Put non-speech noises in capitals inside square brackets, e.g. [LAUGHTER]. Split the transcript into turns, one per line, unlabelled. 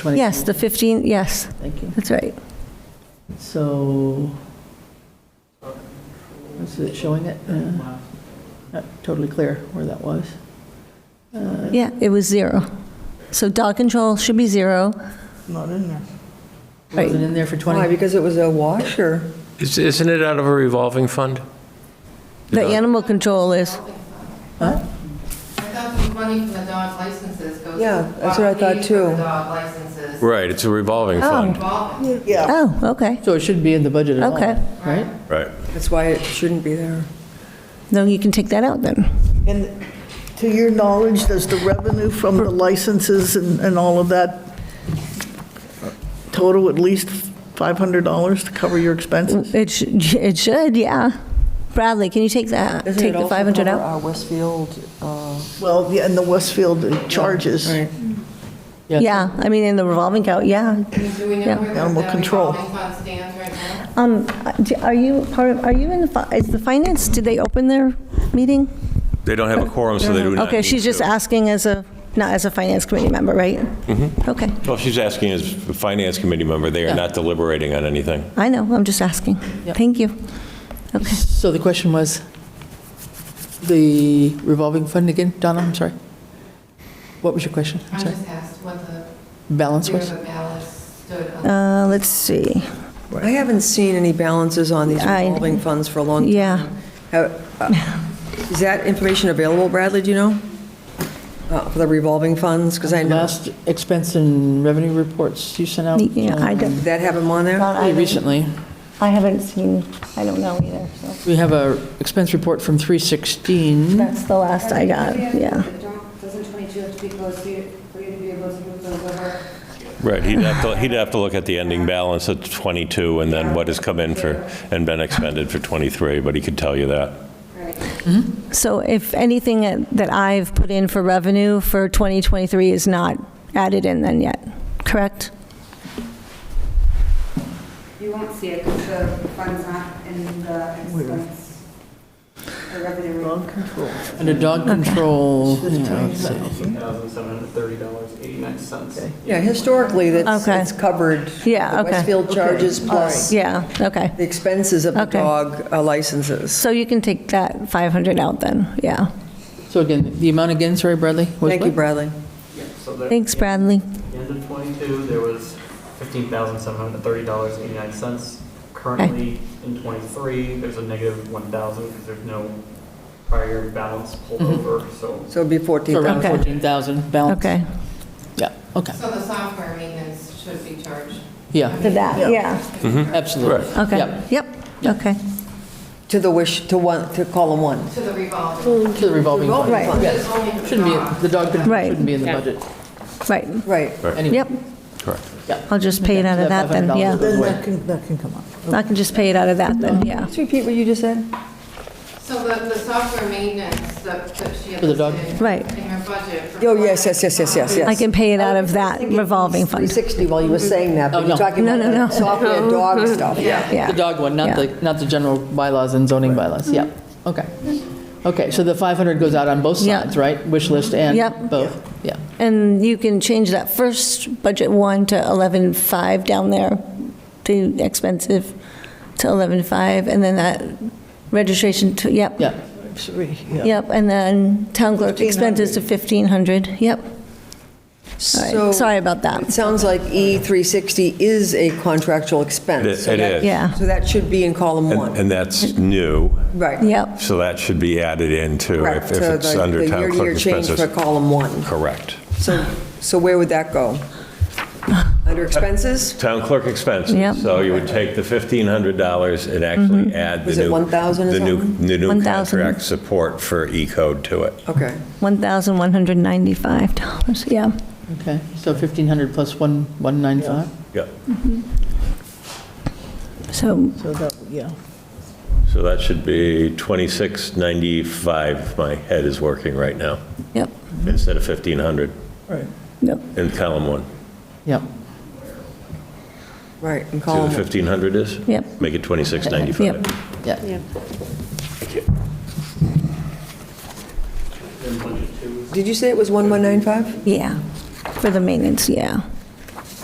20?
Yes, the 15, yes,
Thank you.
that's right.
So, is it showing it? Uh, Not totally clear where that was.
Yeah, it was zero. So dog control should be zero.
Not in there.
Right.
Was it in there for
Why,
20?
because it was a wash, or?
Is- Isn't it out of a revolving fund?
The
dog-
animal control is,
I thought the money from the dog licenses goes. to
Yeah, that's what I thought
fees for
too.
the dog licenses.
Right, it's a revolving
oh,
fund.
Revolving,
oh, okay.
So it shouldn't be in the budget at all,
Okay.
right?
Right.
That's why it shouldn't be there.
No, you can take that out then.
And to your knowledge, does the revenue from the licenses and, and all of that total at least $500 to cover your expenses?
It should, [LAUGHS] it should, yeah. Bradley, can you take that,
Doesn't
take
it
the
also
500
cover
out?
our Westfield, uh,
Well, yeah, and the Westfield charges.
right,
Yeah, I mean, in the revolving account, yeah.
do we
Yeah.
know where
Animal
that
control.
revolving fund stands right now?
Um, do- are you part of, are you in the, fi- is the finance, did they open their meeting?
They don't
Oh.
have a quorum, so they do not
Okay,
need
she's just
to.
asking as a, not as a finance committee member, right? Mm-hmm. Okay,
Well, she's asking as a finance committee member, they are not deliberating on anything.
I know, I'm just asking. Thank you. Okay.
So the question was, the revolving fund again? Donna, I'm sorry. What was your question? I'm
I
sorry.
just asked what the,
Balance
where
was?
the balance stood on
Uh, let's see.
I haven't seen any balances on these
I-
revolving funds for a long time.
Yeah.
Have- uh, Is that information available, Bradley, do you know? Uh, For the revolving funds, because I know,
Last expense and revenue reports you sent out?
Yeah, I
um,
don't,
did that have them on there?
Pretty recently.
I haven't seen, I don't know either, so.
We have a expense report from 316.
That's the last I got, yeah.
Doesn't 22 have to be closed for you for you to be able to move those over?
Right, he'd have to, he'd have to look at the ending balance at 22 and then what has come in for, and been expended for 23, but he could tell you that.
So if anything that that I've put in for revenue for 2023 is not added in then yet, correct?
You won't see it because the fund's not in the expense or revenue report.
Under dog control, yeah, let's see.
$1,730.89.
Yeah, historically, that's,
Okay.
it's covered.
Yeah,
The
okay.
Westfield charges plus
Yeah, okay.
the expenses of the
Okay.
dog uh, licenses.
So you can take that 500 out then, yeah.
So again, the amount again, sorry, Bradley? was
Thank you,
what?
Bradley.
Yeah, so the-
Thanks, Bradley.
At the End of '22, there was $15,730.89. Currently, in '23, there's a negative 1,000 because there's no prior balance pulled over, so
So it'd be
So around
14,000.
Okay.
14,000 balance.
Okay,
Yeah, okay,
So the software maintenance should be charged.
yeah,
to that, yeah,
absolutely.
okay.
Yeah.
Yep, okay.
To the wish, to one, to column one.
To the revolving.
To the revolving fund.
Right.
But it's only for
Shouldn't be, in- the dog control
Right.
shouldn't be in the budget.
Right,
Right.
Anyway.
yep.
Correct.
I'll just pay it out of that then, yeah.
$500.
Then that can, that can come up.
I can just pay it out of that then, yeah.
Just repeat what you just said.
So the, the software maintenance that that she had
For the dog.
listed
Right.
in her budget. for
Oh, yes, yes, yes, yes, yes, yes.
I can
Oh,
pay it out of that revolving fund.
360 while you were saying that,
Oh,
but
no.
you're talking
No,
about
no, no.
the software dog stuff, yeah.
The
Yeah,
dog one, not the, not the general bylaws and zoning bylaws, yeah, okay. Okay, so the 500 goes out on both
Yeah.
sides, right? Wish list and
Yep.
both, yeah.
and you can change that first budget one to 11.5 down there, the expensive to 11.5, and then that registration to, yep.
Yeah,
Yep, and then town clerk expenses to 1,500, yep. All right,
So
Sorry about
It
that,
sounds like E360 is a contractual
It
expense. so
it
that-
is.
yeah,
So that should be in column
And
one,
and that's new,
right.
yep,
so that should be added in too,
Correct,
if if
so
it's
the-
under
The
town
year-to-year
clerk
change for
expenses.
column one.
Correct.
So, so where would that go? Under expenses?
Town clerk
Yep.
expenses, so you would take the $1,500 and actually add
Mm-hmm.
the
Was it
new.
1,000 or
the new-
something?
The new
1,000.
contract support for E-code to it.
Okay.
$1,195, yeah.
okay, so 1,500 plus 1, 195?
Yep.
So,
So that, yeah.
So that should be 2695, my head is working right now,
yep,
instead of 1500
yep,
in column one.
Yep,
Right, in
See what
column,
1500 is?
yep,
Make it
yep.
2695.
yeah,
did you say it was 1195?
Yeah, for the maintenance, yeah.